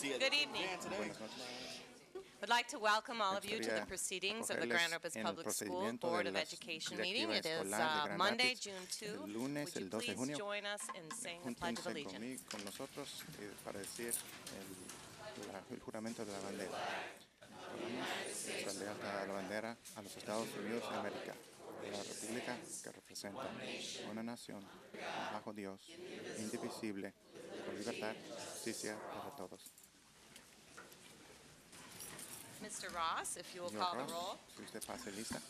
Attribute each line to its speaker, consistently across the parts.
Speaker 1: Good evening. I'd like to welcome all of you to the proceedings of the Grand Rapids
Speaker 2: acogerles en el
Speaker 1: Public School
Speaker 2: procedimiento de
Speaker 1: Board of
Speaker 2: la
Speaker 1: Education meeting.
Speaker 2: Directiva
Speaker 1: It is
Speaker 2: Escolar de
Speaker 1: uh,
Speaker 2: Grand
Speaker 1: Monday,
Speaker 2: Rapids,
Speaker 1: June
Speaker 2: el
Speaker 1: 2.
Speaker 2: lunes,
Speaker 1: Would you
Speaker 2: el 12 de
Speaker 1: please
Speaker 2: junio.
Speaker 1: join us in saying the Pledge of
Speaker 2: Júntense
Speaker 1: Allegiance?
Speaker 2: conmigo, con nosotros eh, para decir el, la- el juramento de la bandera. Juramos nuestra lealtad a la bandera a los Estados Unidos de América, a la república que representa una nación bajo Dios, indivisible, con libertad, justicia para todos.
Speaker 1: Mr. Ross, if you will
Speaker 2: Señor
Speaker 1: call
Speaker 2: Ross,
Speaker 1: the roll.
Speaker 2: si usted pase lista,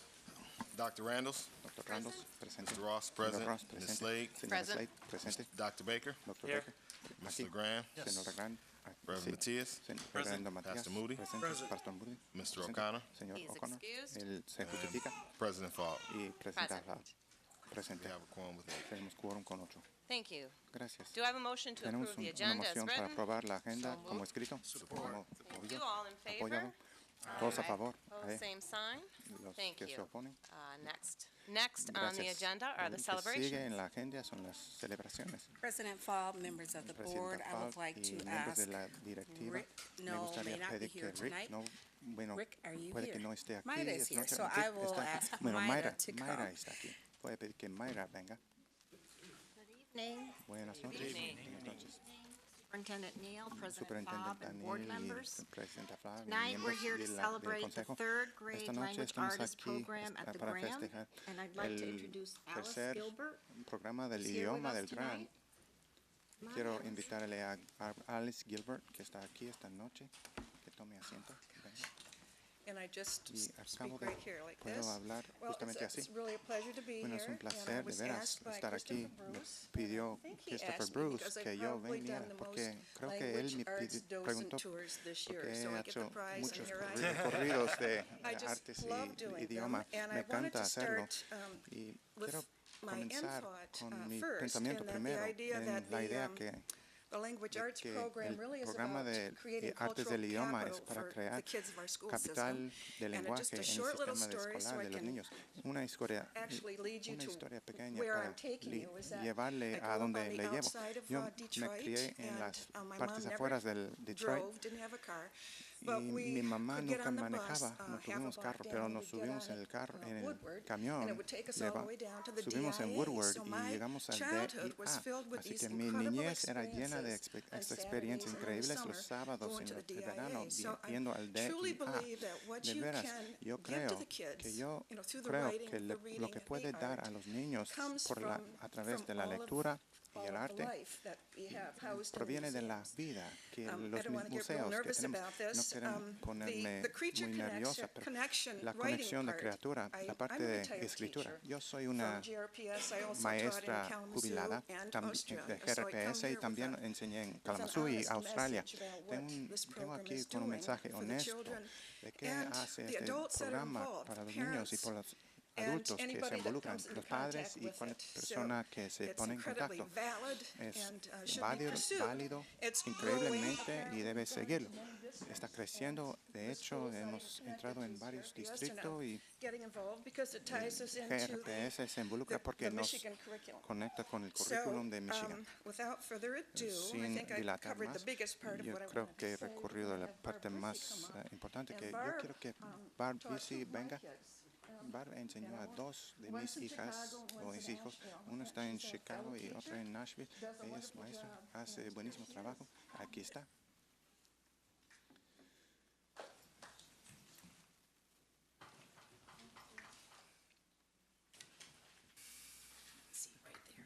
Speaker 3: Dr. Randalls,
Speaker 2: doctor Randolph, presente.
Speaker 3: Mr. Ross,
Speaker 2: Señor
Speaker 3: present.
Speaker 2: Ross,
Speaker 3: Ms.
Speaker 2: presente.
Speaker 3: Slade.
Speaker 2: Señora
Speaker 1: Present.
Speaker 2: Slade, presente.
Speaker 3: Dr. Baker,
Speaker 2: Doctor
Speaker 4: Here.
Speaker 2: Becker,
Speaker 3: Mr.
Speaker 2: aquí.
Speaker 3: LeGrand,
Speaker 2: Senadora Grant. ah, sí.
Speaker 3: Reverend Matias,
Speaker 2: Sen- Reverendo Matías.
Speaker 3: Pastor Moody.
Speaker 2: Presente.
Speaker 4: Present.
Speaker 2: Pastor Moody.
Speaker 3: Mr.
Speaker 2: Presente.
Speaker 3: O'Connor. Um,
Speaker 2: Señor
Speaker 1: He is
Speaker 2: O'Connor.
Speaker 1: excused.
Speaker 2: Él se justifica
Speaker 3: President Falk.
Speaker 2: y presenta la
Speaker 1: Present.
Speaker 3: We
Speaker 2: presente.
Speaker 3: have a quorum with eight.
Speaker 2: Tenemos quórum con ocho.
Speaker 1: Thank you.
Speaker 2: Gracias.
Speaker 1: Do I have a motion to
Speaker 2: Tenemos
Speaker 1: approve
Speaker 2: un-
Speaker 1: the
Speaker 2: una
Speaker 1: agenda as
Speaker 2: moción para
Speaker 1: written?
Speaker 2: aprobar la agenda
Speaker 1: So
Speaker 2: como
Speaker 1: moved.
Speaker 2: escrito. Como
Speaker 1: Thank you.
Speaker 2: obvio.
Speaker 1: All in favor?
Speaker 2: Apoyado. Todos a
Speaker 1: Aye.
Speaker 2: favor.
Speaker 1: Opposed,
Speaker 2: Aye.
Speaker 1: same sign.
Speaker 2: Los
Speaker 1: Thank
Speaker 2: que se
Speaker 1: you.
Speaker 2: oponen.
Speaker 1: Uh, Next, next on the
Speaker 2: Gracias.
Speaker 1: agenda are the
Speaker 2: Lo que Sigue
Speaker 1: celebrations.
Speaker 2: en la agenda son las celebraciones.
Speaker 5: President Fobb, members of the board,
Speaker 2: Presidenta
Speaker 5: I
Speaker 2: Falk
Speaker 5: would like
Speaker 2: y
Speaker 5: to
Speaker 2: miembros de
Speaker 5: ask,
Speaker 2: la directiva.
Speaker 5: Rick
Speaker 2: Me
Speaker 5: Knoll
Speaker 2: gustaría
Speaker 5: may not be
Speaker 2: pedir que
Speaker 5: here
Speaker 2: Rick
Speaker 5: tonight.
Speaker 2: no, bueno,
Speaker 5: Rick, are you
Speaker 2: puede que
Speaker 5: here?
Speaker 2: no esté aquí.
Speaker 5: Mayra
Speaker 2: es
Speaker 5: is here,
Speaker 2: noche-
Speaker 5: so
Speaker 2: Rick
Speaker 5: I will
Speaker 2: está aquí.
Speaker 5: ask
Speaker 2: Bueno,
Speaker 5: Mayra
Speaker 2: Mayra,
Speaker 5: to
Speaker 2: Mayra
Speaker 5: come.
Speaker 2: está aquí. Voy a pedir que Mayra venga.
Speaker 6: evening,
Speaker 2: Buenas noches. Buenas noches.
Speaker 6: Superintendent Neal, President Bob,
Speaker 2: Superintendente
Speaker 6: and board
Speaker 2: Daniel
Speaker 6: members.
Speaker 2: y Presidenta Flavia,
Speaker 6: Tonight, we're
Speaker 2: miembros
Speaker 6: here to
Speaker 2: de la- del
Speaker 6: celebrate the
Speaker 2: consejo.
Speaker 6: third
Speaker 2: Esta
Speaker 6: grade
Speaker 2: noche
Speaker 6: language
Speaker 2: estamos
Speaker 6: artist
Speaker 2: aquí
Speaker 6: program
Speaker 2: esta-
Speaker 6: at the
Speaker 2: para
Speaker 6: Graham.
Speaker 2: festejar
Speaker 6: And I'd like to
Speaker 2: el
Speaker 6: introduce Alice
Speaker 2: tercer
Speaker 6: Gilbert.
Speaker 2: programa del
Speaker 6: who's here with
Speaker 2: idioma
Speaker 6: us
Speaker 2: del GRAM.
Speaker 6: tonight. Come on,
Speaker 2: Quiero
Speaker 6: Alice.
Speaker 2: invitarle a a Alice Gilbert, que está aquí esta noche, que tome asiento. Venga.
Speaker 7: And I just
Speaker 2: Y
Speaker 7: s- speak
Speaker 2: acabo de-
Speaker 7: right here like
Speaker 2: puedo
Speaker 7: this.
Speaker 2: hablar
Speaker 7: Well, it's-
Speaker 2: justamente así.
Speaker 7: It's really a pleasure to be here.
Speaker 2: Bueno, es un
Speaker 7: and I
Speaker 2: placer de
Speaker 7: was
Speaker 2: veras
Speaker 7: asked by
Speaker 2: estar aquí.
Speaker 7: Christopher
Speaker 2: Me
Speaker 7: Bruce.
Speaker 2: pidió
Speaker 7: think he
Speaker 2: Christopher
Speaker 7: asked me
Speaker 2: Bruce
Speaker 7: because I've
Speaker 2: que yo
Speaker 7: probably
Speaker 2: veniera
Speaker 7: done the
Speaker 2: porque
Speaker 7: most
Speaker 2: creo que él me
Speaker 7: language
Speaker 2: pidi-
Speaker 7: arts
Speaker 2: preguntó
Speaker 7: doors and tours this
Speaker 2: porque
Speaker 7: year,
Speaker 2: he
Speaker 7: so I get the
Speaker 2: hecho
Speaker 7: prize and
Speaker 2: muchos
Speaker 7: here I
Speaker 2: corri-
Speaker 7: am.
Speaker 2: corridos de
Speaker 7: I just
Speaker 2: artes
Speaker 7: love
Speaker 2: y
Speaker 7: doing
Speaker 2: idioma.
Speaker 7: them, and
Speaker 2: Me
Speaker 7: I wanted
Speaker 2: encanta
Speaker 7: to
Speaker 2: hacerlo
Speaker 7: start, um,
Speaker 2: y
Speaker 7: with
Speaker 2: quiero
Speaker 7: my
Speaker 2: comenzar
Speaker 7: end thought,
Speaker 2: con
Speaker 7: uh,
Speaker 2: mi
Speaker 7: first,
Speaker 2: pensamiento
Speaker 7: and that the
Speaker 2: primero
Speaker 7: idea
Speaker 2: en
Speaker 7: that
Speaker 2: la
Speaker 7: the,
Speaker 2: idea
Speaker 7: um,
Speaker 2: que
Speaker 7: The language
Speaker 2: de
Speaker 7: arts
Speaker 2: que
Speaker 7: program really
Speaker 2: el
Speaker 7: is
Speaker 2: programa
Speaker 7: about
Speaker 2: de, de
Speaker 7: creating
Speaker 2: artes del
Speaker 7: cultural
Speaker 2: idioma es
Speaker 7: capital
Speaker 2: para
Speaker 7: for the
Speaker 2: crear
Speaker 7: kids of our school
Speaker 2: capital de
Speaker 7: system. And uh, just
Speaker 2: lenguaje en
Speaker 7: a
Speaker 2: el
Speaker 7: short little
Speaker 2: sistema de
Speaker 7: story so
Speaker 2: escolar
Speaker 7: I
Speaker 2: de los
Speaker 7: can
Speaker 2: niños. Una historia,
Speaker 7: actually lead you
Speaker 2: una
Speaker 7: to
Speaker 2: historia pequeña
Speaker 7: where
Speaker 2: para
Speaker 7: I'm taking
Speaker 2: li-
Speaker 7: you is that I
Speaker 2: llevarle
Speaker 7: grew
Speaker 2: a
Speaker 7: up
Speaker 2: donde
Speaker 7: on the
Speaker 2: le llevo.
Speaker 7: outside of,
Speaker 2: Yo
Speaker 7: uh,
Speaker 2: me
Speaker 7: Detroit,
Speaker 2: crié en
Speaker 7: and,
Speaker 2: las
Speaker 7: uh, my
Speaker 2: partes
Speaker 7: mom never
Speaker 2: afuera del Detroit
Speaker 7: drove, didn't have a car,
Speaker 2: y
Speaker 7: but we
Speaker 2: mi mamá
Speaker 7: could get
Speaker 2: nunca
Speaker 7: on the bus,
Speaker 2: manejaba,
Speaker 7: uh,
Speaker 2: no
Speaker 7: half a
Speaker 2: tuvimos
Speaker 7: block
Speaker 2: carro,
Speaker 7: down,
Speaker 2: pero
Speaker 7: and
Speaker 2: nos
Speaker 7: we'd get
Speaker 2: subimos
Speaker 7: on
Speaker 2: en el
Speaker 7: it,
Speaker 2: carro,
Speaker 7: uh,
Speaker 2: en el
Speaker 7: Woodward,
Speaker 2: camión,
Speaker 7: and it would take us
Speaker 2: le
Speaker 7: all the
Speaker 2: va-
Speaker 7: way down to the
Speaker 2: subimos en
Speaker 7: DIA,
Speaker 2: Woodward
Speaker 7: so
Speaker 2: y
Speaker 7: my
Speaker 2: llegamos al
Speaker 7: childhood was filled
Speaker 2: DIA,
Speaker 7: with
Speaker 2: así
Speaker 7: these
Speaker 2: que mi
Speaker 7: incredible
Speaker 2: niñez era llena de
Speaker 7: experiences on
Speaker 2: estas experiencias
Speaker 7: Saturdays and in the
Speaker 2: increíbles los
Speaker 7: summer
Speaker 2: sábados
Speaker 7: going
Speaker 2: en
Speaker 7: to
Speaker 2: los
Speaker 7: the
Speaker 2: el verano,
Speaker 7: DIA. So I
Speaker 2: viendo al
Speaker 7: truly
Speaker 2: DIA.
Speaker 7: believe that what
Speaker 2: Ah, De
Speaker 7: you
Speaker 2: veras,
Speaker 7: can
Speaker 2: yo
Speaker 7: give to
Speaker 2: creo que
Speaker 7: the
Speaker 2: yo
Speaker 7: kids, you know, through the
Speaker 2: creo
Speaker 7: writing,
Speaker 2: que
Speaker 7: the
Speaker 2: le- lo
Speaker 7: reading,
Speaker 2: que
Speaker 7: and
Speaker 2: puede
Speaker 7: the
Speaker 2: dar
Speaker 7: art
Speaker 2: a los niños
Speaker 7: comes
Speaker 2: por la,
Speaker 7: from-
Speaker 2: a través
Speaker 7: from
Speaker 2: de la
Speaker 7: all of-
Speaker 2: lectura y
Speaker 7: all
Speaker 2: el
Speaker 7: of the
Speaker 2: arte
Speaker 7: life that we have housed in the
Speaker 2: proviene de la
Speaker 7: museums.
Speaker 2: vida que
Speaker 7: Um, I
Speaker 2: los
Speaker 7: don't wanna get real
Speaker 2: museos que
Speaker 7: nervous
Speaker 2: tenemos.
Speaker 7: about
Speaker 2: No
Speaker 7: this.
Speaker 2: quiero
Speaker 7: Um, the-
Speaker 2: ponerme
Speaker 7: the creature
Speaker 2: muy nerviosa,
Speaker 7: connection-
Speaker 2: pero
Speaker 7: connection
Speaker 2: la
Speaker 7: writing
Speaker 2: conexión de
Speaker 7: part,
Speaker 2: criatura,
Speaker 7: I-
Speaker 2: la parte
Speaker 7: I'm a
Speaker 2: de
Speaker 7: retired
Speaker 2: escritura.
Speaker 7: teacher
Speaker 2: Yo soy
Speaker 7: from
Speaker 2: una
Speaker 7: GRPS. I also taught in
Speaker 2: maestra
Speaker 7: Kalamazoo
Speaker 2: jubilada
Speaker 7: and
Speaker 2: tam- eh,
Speaker 7: Austria.
Speaker 2: de
Speaker 7: So I come
Speaker 2: GRPS y
Speaker 7: here with
Speaker 2: también
Speaker 7: a-
Speaker 2: enseñé en
Speaker 7: an
Speaker 2: Kalamazoo y
Speaker 7: honest
Speaker 2: Australia.
Speaker 7: message about
Speaker 2: Tengo,
Speaker 7: what
Speaker 2: un-
Speaker 7: this
Speaker 2: tengo
Speaker 7: program
Speaker 2: aquí
Speaker 7: is
Speaker 2: con un
Speaker 7: doing
Speaker 2: mensaje
Speaker 7: for the
Speaker 2: honesto
Speaker 7: children
Speaker 2: de qué
Speaker 7: and
Speaker 2: hace
Speaker 7: the
Speaker 2: este
Speaker 7: adults that are
Speaker 2: programa
Speaker 7: involved,
Speaker 2: para los
Speaker 7: the
Speaker 2: niños y por los
Speaker 7: parents, and
Speaker 2: adultos que
Speaker 7: anybody
Speaker 2: se
Speaker 7: that
Speaker 2: involucran,
Speaker 7: comes in
Speaker 2: los padres
Speaker 7: contact
Speaker 2: y
Speaker 7: with
Speaker 2: cualquier
Speaker 7: it. So
Speaker 2: persona que se
Speaker 7: it's
Speaker 2: pone en
Speaker 7: incredibly
Speaker 2: contacto.
Speaker 7: valid
Speaker 2: Es
Speaker 7: and, uh, should be
Speaker 2: válido,
Speaker 7: pursued.
Speaker 2: válido
Speaker 7: It's growing.
Speaker 2: increíblemente y debe seguirlo. Está creciendo. De hecho, hemos entrado en varios distritos y
Speaker 7: Getting involved because it ties us into the-
Speaker 2: GRPS se involucra
Speaker 7: the-
Speaker 2: porque
Speaker 7: the
Speaker 2: nos
Speaker 7: Michigan curriculum.
Speaker 2: conecta con el
Speaker 7: So,
Speaker 2: currículum de Michigan.
Speaker 7: um, without further ado, I
Speaker 2: Sin
Speaker 7: think I
Speaker 2: dilatar
Speaker 7: covered
Speaker 2: más,
Speaker 7: the biggest part of
Speaker 2: yo
Speaker 7: what I
Speaker 2: creo
Speaker 7: wanted
Speaker 2: que
Speaker 7: to
Speaker 2: he
Speaker 7: say.
Speaker 2: recurrido a la
Speaker 7: Have
Speaker 2: parte
Speaker 7: Barb Busey
Speaker 2: más
Speaker 7: come
Speaker 2: eh,
Speaker 7: up.
Speaker 2: importante,
Speaker 7: And
Speaker 2: que yo
Speaker 7: Barb,
Speaker 2: quiero que
Speaker 7: um,
Speaker 2: Barb
Speaker 7: taught two
Speaker 2: Busey
Speaker 7: of my
Speaker 2: venga.
Speaker 7: kids.
Speaker 2: Barb enseñó a dos de mis
Speaker 7: One's in
Speaker 2: hijas
Speaker 7: Chicago,
Speaker 2: o
Speaker 7: one's
Speaker 2: mis
Speaker 7: in
Speaker 2: hijos.
Speaker 7: Nashville.
Speaker 2: Uno está en
Speaker 7: She's a
Speaker 2: Chicago
Speaker 7: fellow
Speaker 2: y
Speaker 7: teacher,
Speaker 2: otro en Nashville.
Speaker 7: does a
Speaker 2: Ella es
Speaker 7: wonderful
Speaker 2: maestra,
Speaker 7: job,
Speaker 2: hace
Speaker 7: and
Speaker 2: buenísimo
Speaker 7: she
Speaker 2: trabajo. Aquí está.
Speaker 7: See right there.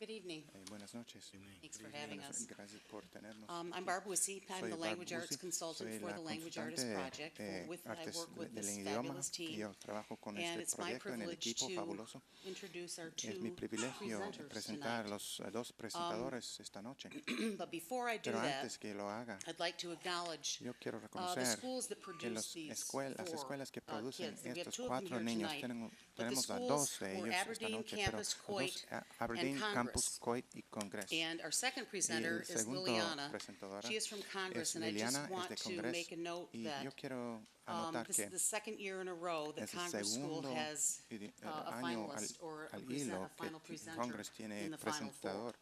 Speaker 5: Good evening.
Speaker 2: Eh, buenas noches.
Speaker 5: Thanks for having
Speaker 2: Buenas-
Speaker 5: us.
Speaker 2: Gracias por tenernos.
Speaker 5: Um, I'm Barb Wissie. I'm
Speaker 2: Soy
Speaker 5: the
Speaker 2: Barb
Speaker 5: language arts
Speaker 2: Busey. Soy
Speaker 5: consultant for
Speaker 2: la
Speaker 5: the Language Artist
Speaker 2: consultante
Speaker 5: Project.
Speaker 2: de
Speaker 5: With, I
Speaker 2: artes
Speaker 5: work with
Speaker 2: del
Speaker 5: this
Speaker 2: idioma.
Speaker 5: fabulous team.
Speaker 2: Yo trabajo con
Speaker 5: And
Speaker 2: este
Speaker 5: it's my
Speaker 2: proyecto en el
Speaker 5: privilege
Speaker 2: equipo
Speaker 5: to
Speaker 2: fabuloso.
Speaker 5: introduce our two
Speaker 2: Es mi privilegio
Speaker 5: presenters
Speaker 2: presentar a
Speaker 5: tonight.
Speaker 2: los eh, dos presentadores esta noche.
Speaker 5: But before I do
Speaker 2: Pero
Speaker 5: that,
Speaker 2: antes que lo haga,
Speaker 5: I'd like to acknowledge
Speaker 2: yo quiero
Speaker 5: uh, the
Speaker 2: reconocer
Speaker 5: schools that
Speaker 2: que
Speaker 5: produce
Speaker 2: los
Speaker 5: these four
Speaker 2: escuel- las escuelas que
Speaker 5: uh,
Speaker 2: producen
Speaker 5: kids. We have
Speaker 2: estos
Speaker 5: two of them
Speaker 2: cuatro
Speaker 5: here
Speaker 2: niños,
Speaker 5: tonight.
Speaker 2: tenemos,
Speaker 5: But the
Speaker 2: tenemos a dos
Speaker 5: schools
Speaker 2: de
Speaker 5: were
Speaker 2: ellos esta
Speaker 5: Aberdeen,
Speaker 2: noche, pero
Speaker 5: Campus,
Speaker 2: a
Speaker 5: Coit,
Speaker 2: dos, a- Aberdeen,
Speaker 5: and
Speaker 2: Campus,
Speaker 5: Congress.
Speaker 2: Coit y Congress.
Speaker 5: And our second presenter
Speaker 2: el
Speaker 5: is
Speaker 2: segundo
Speaker 5: Liliana.
Speaker 2: presentadora
Speaker 5: She is from
Speaker 2: es
Speaker 5: Congress, and I
Speaker 2: Liliana,
Speaker 5: just
Speaker 2: es de
Speaker 5: want to
Speaker 2: Congress.
Speaker 5: make a note
Speaker 2: Y
Speaker 5: that
Speaker 2: yo quiero
Speaker 5: um,
Speaker 2: anotar
Speaker 5: this is
Speaker 2: que
Speaker 5: the second year in a row that
Speaker 2: es el
Speaker 5: Congress School
Speaker 2: segundo
Speaker 5: has
Speaker 2: idi-
Speaker 5: uh, a
Speaker 2: año al,
Speaker 5: finalist or a
Speaker 2: al
Speaker 5: present-
Speaker 2: hilo
Speaker 5: a final
Speaker 2: que
Speaker 5: presenter
Speaker 2: Congress
Speaker 5: in
Speaker 2: tiene
Speaker 5: the final four.
Speaker 2: presentador